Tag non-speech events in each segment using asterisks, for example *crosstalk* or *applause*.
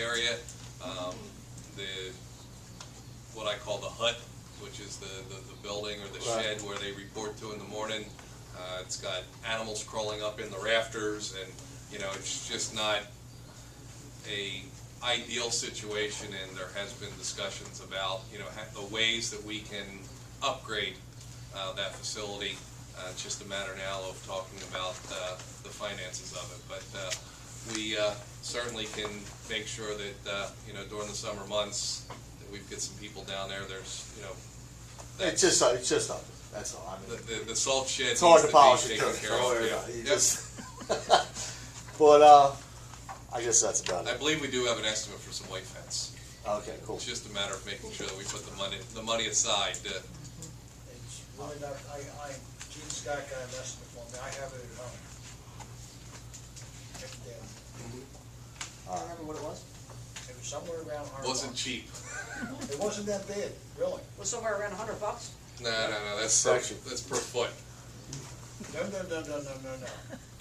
area, um, the, what I call the hut, which is the, the, the building or the Right. shed where they report to in the morning. Uh, it's got animals crawling up in the rafters and, you know, it's just not a ideal situation and there has been discussions about, you know, ha- the ways that we can upgrade, uh, that facility. Uh, it's just a matter now of talking about, uh, the finances of it, but, uh, we, uh, certainly can make sure that, uh, you know, during the summer months, that we've got some people down there, there's, you know, It's just, it's just up. That's all. I the, mean, the, the salt shed needs it's hard to to be polish it. taken care of. Yeah. You Yep. just, *laughs* but uh, I guess that's about I it. believe we do have an estimate for some white fence. Okay, cool. It's just a matter of making sure that we put the money, the money aside Uh, to It's really not, I, I, Gene Scott got an estimate for me, I have it at home. Check it down. All right. remember what it was? It was somewhere around Harbor. Wasn't cheap. It wasn't that bad, really. Was somewhere around a hundred bucks? No, no, no, that's per, Section. that's per foot. No, no, no, no, no, no, no.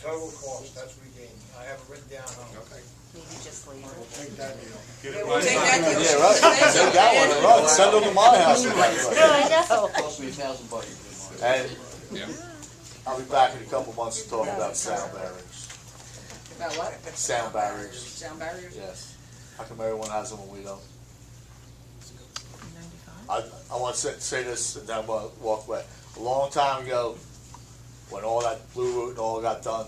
Total cost, that's what we gained. I have it written down home. Okay. Maybe just leave We'll it. take that deal. Yeah, we'll take that deal. Yeah, right. Take that one. Right. Send them to my house. if that's right. I know. Cost me a thousand bucks. And Yeah. I'll be back in a couple months to talk about sound barriers. About what? Sound barriers. Sound barriers? Yes. How come everyone has them when we don't? I, I want to say, say this and then we'll walk away. A long time ago, when all that Blue Route and all got done,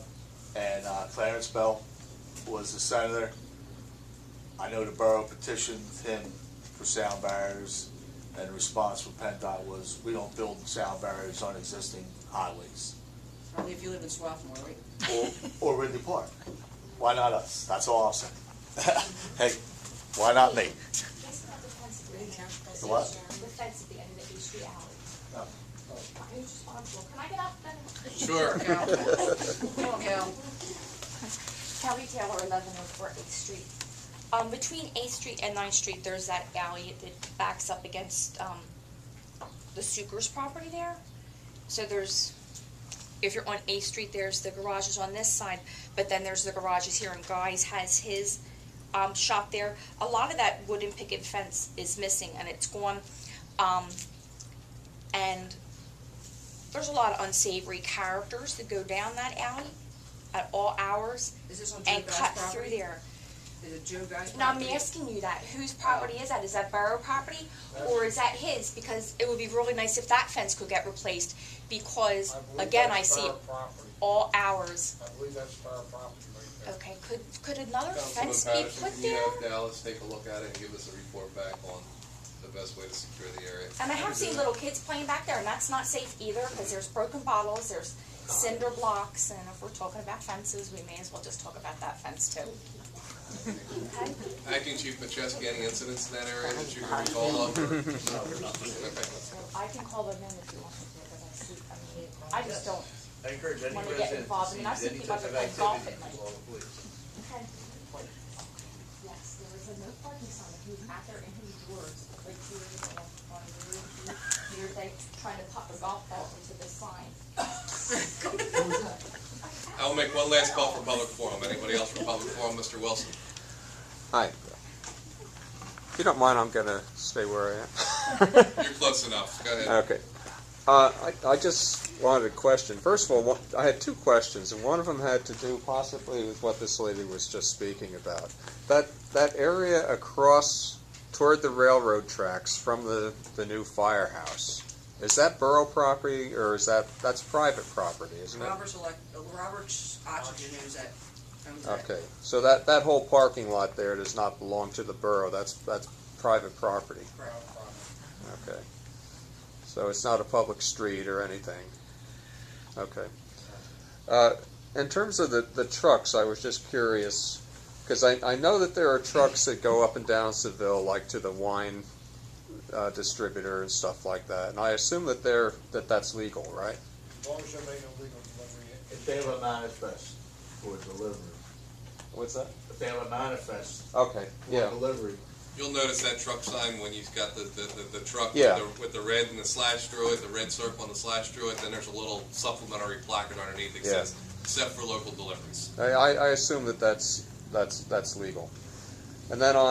and uh, Clarence Bell was the senator, I know the borough petitioned him for sound barriers, and the response from PennDOT was, we don't build sound barriers on existing highways Only if you live in Swarthmore, right? or, or Ridley Park. Why not us? That's all I'm saying. *laughs* hey, why not me? Guess about the fence at the end of the The what? station, The fence at the end of the H Street alley. Oh. I'm responsible. Can I get out then? Sure. Cal. *laughs* Come on, Cal. Kelly Taylor, eleven oh four Eighth Street. Um, between Eighth Street and Ninth Street, there's that alley that backs up against, um, the Sucre's property there. So there's, if you're on Eighth Street, there's the garages on this side, but then there's the garages here, and Guy's has his, um, shop there. A lot of that wooden picket fence is missing, and it's gone, um, and there's a lot of unsavory characters that go down that alley at all hours Is this on Joe and Guy's cut property? through there. Is it Joe Guy's Now, I'm property? asking you that, whose property is that? Is that borough property or is that his? Because it would be really nice if that fence could get replaced I because, believe again, I that's see it fire property. all hours. I believe that's fire property right there. Okay, could, could another Councilman fence be Patterson, put can you there? have Dallas take a look at it and give us a report back on the best way to secure the area? And I have seen little kids playing back there and that's not safe either because there's broken bottles, there's cinder blocks, and if we're talking about fences, we may as well just talk about that fence too. Okay? Acting Chief Macheski, any incidents in that area that you can recall of? Okay. I can call them in if you want me to, but I see, I mean, I just don't. I encourage any Wanna get resident to involved, and I've seize seen any people type of that play golf activity at night. to call the police. Okay. Yes, there was a no parking sign, he was out there in his drawers, like here on, on the roof, he, he was like trying to pop a golf ball into the sign. I'll make one last call for public forum. Anybody else for public forum? Mr. Wilson? Hi. If you don't mind, I'm going to stay where I You're close enough. Go am. ahead. okay. Uh, I, I just wanted a question. First of all, one, I had two questions, and one of them had to do possibly with what this lady was just speaking about. That that area across toward the railroad tracks from the, the new firehouse is that borough property or is that that's private property, isn't it? Robert's elect, uh, Robert's oxygen owns that, owns that. Okay, so that, that whole parking lot there does not belong to the borough, that's, that's private property, Correct. okay? So it's not a public street or anything, okay? Uh, in terms of the, the trucks, I was just curious, because I, I know that there are trucks that go up and down Seville, like to the wine uh, distributor and stuff like that, and I assume that they're, that that's legal, right? As long as you're making a legal delivery, it- If they have a manifest for delivery, What's that? if they have a manifest Okay, for yeah, delivery, You'll notice that truck sign when you've got the, the, the, the truck Yeah. with, the, with the red and the slash through it, the red circle and the slash through it, then there's a little supplementary placard underneath that Yeah. says, except for local deliveries. I, I, I assume that that's, that's, that's legal. And then on